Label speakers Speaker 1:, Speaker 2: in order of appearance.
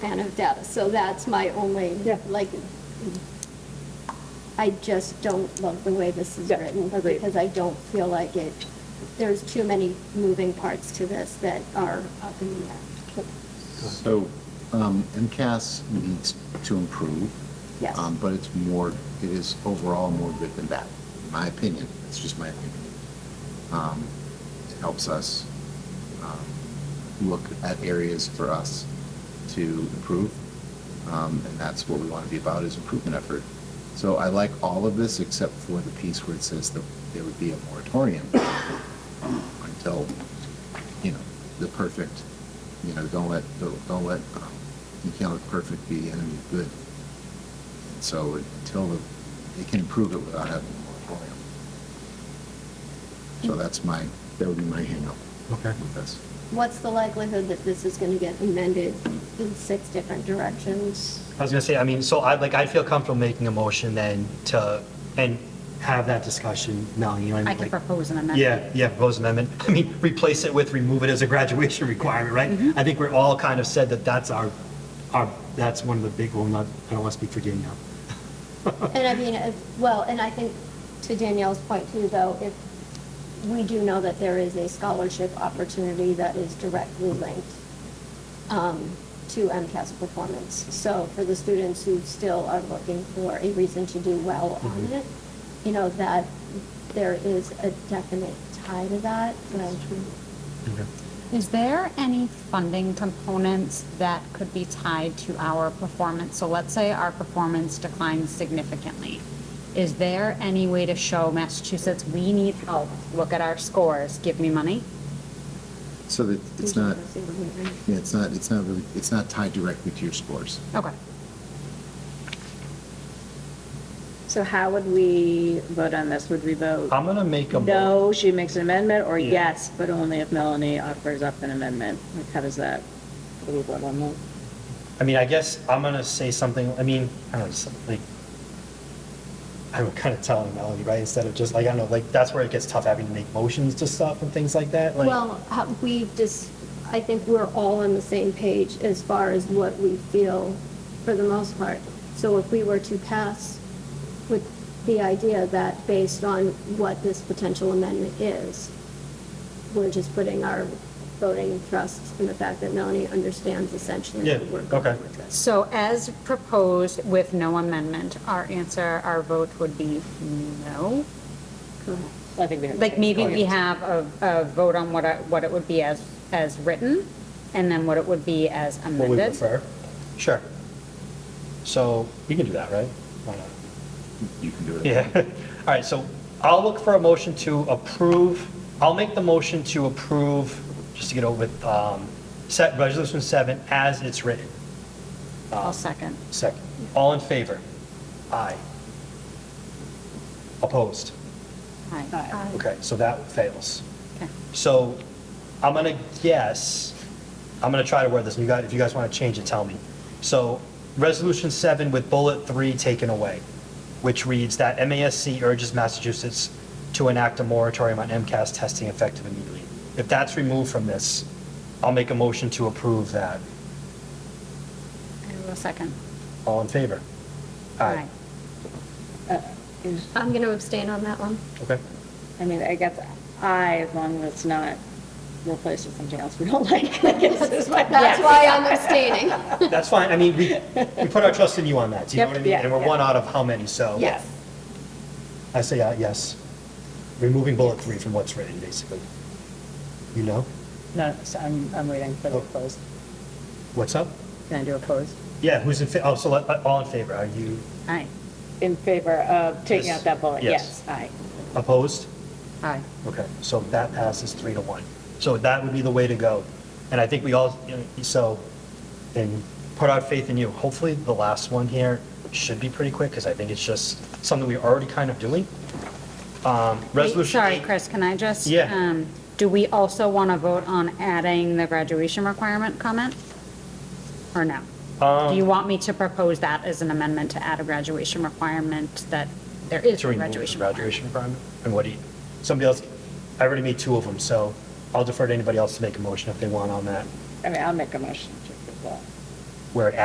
Speaker 1: fan of data, so that's my only,
Speaker 2: Yeah.
Speaker 1: like, I just don't love the way this is
Speaker 2: Yeah,
Speaker 1: written,
Speaker 2: agreed.
Speaker 1: because I don't feel like it, there's too many moving parts to this that are up in the air.
Speaker 3: So, um, MCAS needs to improve.
Speaker 1: Yes.
Speaker 3: um, But it's more, it is overall more good than bad, in my opinion. It's just my opinion. Um, It helps us um, look at areas for us to improve. Um, And that's what we want to be about, is improvement effort. So I like all of this except for the piece where it says that there would be a moratorium until, you know, the perfect, you know, don't let, don't don't let, um, you can't let perfect be the enemy of good. And so until the, they can improve it without having a moratorium. So that's my, that would be my hangup.
Speaker 4: Okay.
Speaker 3: With this.
Speaker 1: What's the likelihood that this is going to get amended in six different directions?
Speaker 4: I was gonna say, I mean, so I, like, I'd feel comfortable making a motion then to, and have that discussion, Melanie, you know what I
Speaker 5: I
Speaker 4: mean? Like,
Speaker 5: can propose an amendment.
Speaker 4: Yeah, yeah, proposed amendment. I mean, replace it with remove it as a graduation requirement,
Speaker 5: Mm-hmm.
Speaker 4: right? I think we're all kind of said that that's our, our, that's one of the big, well, not, I don't want to speak for Danielle.
Speaker 1: And I mean, if- well, and I think to Danielle's point too, though, if we do know that there is a scholarship opportunity that is directly linked um, to MCAS performance. So for the students who still are looking for a reason to do well on
Speaker 4: Mhm.
Speaker 1: it, you know, that there is a definite tie to that. That's true.
Speaker 5: Is there any funding components that could be tied to our performance? So let's say our performance declines significantly. Is there any way to show Massachusetts, we need help, look at our scores, give me money?
Speaker 3: So that it's not, yeah, it's not, it's not really, it's not tied directly to your scores.
Speaker 5: Okay.
Speaker 2: So how would we vote on this? Would we vote?
Speaker 4: I'm gonna make a. mo-
Speaker 2: No, she makes an amendment, or
Speaker 4: Yeah.
Speaker 2: yes, but only if Melanie offers up an amendment? Like, how does that? what do we vote on that?
Speaker 4: I mean, I guess I'm gonna say something, I mean, I don't know, some- like, I would kind of tell Melanie, right, instead of just, like, I don't know, like, that's where it gets tough, having to make motions to stuff and things like that, like.
Speaker 1: Well, how- we just, I think we're all on the same page as far as what we feel for the most part. So if we were to pass with the idea that based on what this potential amendment is, we're just putting our voting trust in the fact that Melanie understands essentially
Speaker 4: Yeah,
Speaker 1: what we're going
Speaker 4: okay.
Speaker 1: with this.
Speaker 5: So as proposed with no amendment, our answer, our vote would be no?
Speaker 2: I think we have. to
Speaker 5: Like
Speaker 2: take-
Speaker 5: maybe
Speaker 2: oh, yeah.
Speaker 5: we have a, a vote on what, I- what it would be as, as written, and then what it would be as amended?
Speaker 4: what we prefer. Sure. So you can do that, right? Why not?
Speaker 3: You can do it.
Speaker 4: Yeah. All right, so I'll look for a motion to approve, I'll make the motion to approve, just to get over with, um, set resolution seven as it's written.
Speaker 5: I'll second.
Speaker 4: Second. All in favor? Aye. Opposed?
Speaker 5: Aye. Uh,
Speaker 2: Aye.
Speaker 4: Okay, so that fails.
Speaker 5: Okay.
Speaker 4: So I'm going to guess, I'm going to try to word this, and you guys, if you guys want to change it, tell me. So Resolution 7 with bullet 3 taken away, which reads that MASC urges Massachusetts to enact a moratorium on MCAS testing effective immediately. If that's removed from this, I'll make a motion to approve that.
Speaker 5: I will second.
Speaker 4: All in favor? Aye.
Speaker 2: Is-
Speaker 1: I'm going to abstain on that one.
Speaker 4: Okay.
Speaker 2: I mean, I guess I, as long as it's not replaced with something else we don't like, I guess is my.
Speaker 1: That's why I'm abstaining.
Speaker 4: That's fine. I mean, we, we put our trust in you on that, do you know
Speaker 2: Yep,
Speaker 4: what I mean?
Speaker 2: yeah,
Speaker 4: And we're
Speaker 2: yeah.
Speaker 4: one out of how many, so.
Speaker 2: Yes.
Speaker 4: I say uh, yes. Removing bullet three from what's written, basically. You know?
Speaker 2: No, so I'm, I'm waiting for the
Speaker 4: Oh.
Speaker 2: opposed.
Speaker 4: What's up?
Speaker 2: Can I do opposed?
Speaker 4: Yeah, who's in, fa- oh, so let- all in favor? Are you
Speaker 5: Aye.
Speaker 2: In favor of taking
Speaker 4: Yes.
Speaker 2: out that bullet,
Speaker 4: Yes.
Speaker 2: yes, aye.
Speaker 4: opposed?
Speaker 5: Aye.
Speaker 4: Okay, so that passes three to one. So that would be the way to go. And I think we all, you know, so, and put our faith in you. Hopefully, the last one here should be pretty quick, because I think it's just something we're already kind of doing. Um,
Speaker 5: Wait,
Speaker 4: Resolution.
Speaker 5: Sorry,
Speaker 4: eight-
Speaker 5: Chris, can I just?
Speaker 4: Yeah.
Speaker 5: um, Do we also want to vote on adding the graduation requirement comment? Or no? Do
Speaker 4: Um,
Speaker 5: you want me to propose that as an amendment to add a graduation requirement that there is
Speaker 4: To
Speaker 5: a
Speaker 4: remove the
Speaker 5: graduation? requirement?
Speaker 4: graduation requirement? And what do you, somebody else, I already made two of them, so I'll defer to anybody else to make a motion if they want on that.
Speaker 2: I mean, I'll make a motion to approve that.
Speaker 4: where it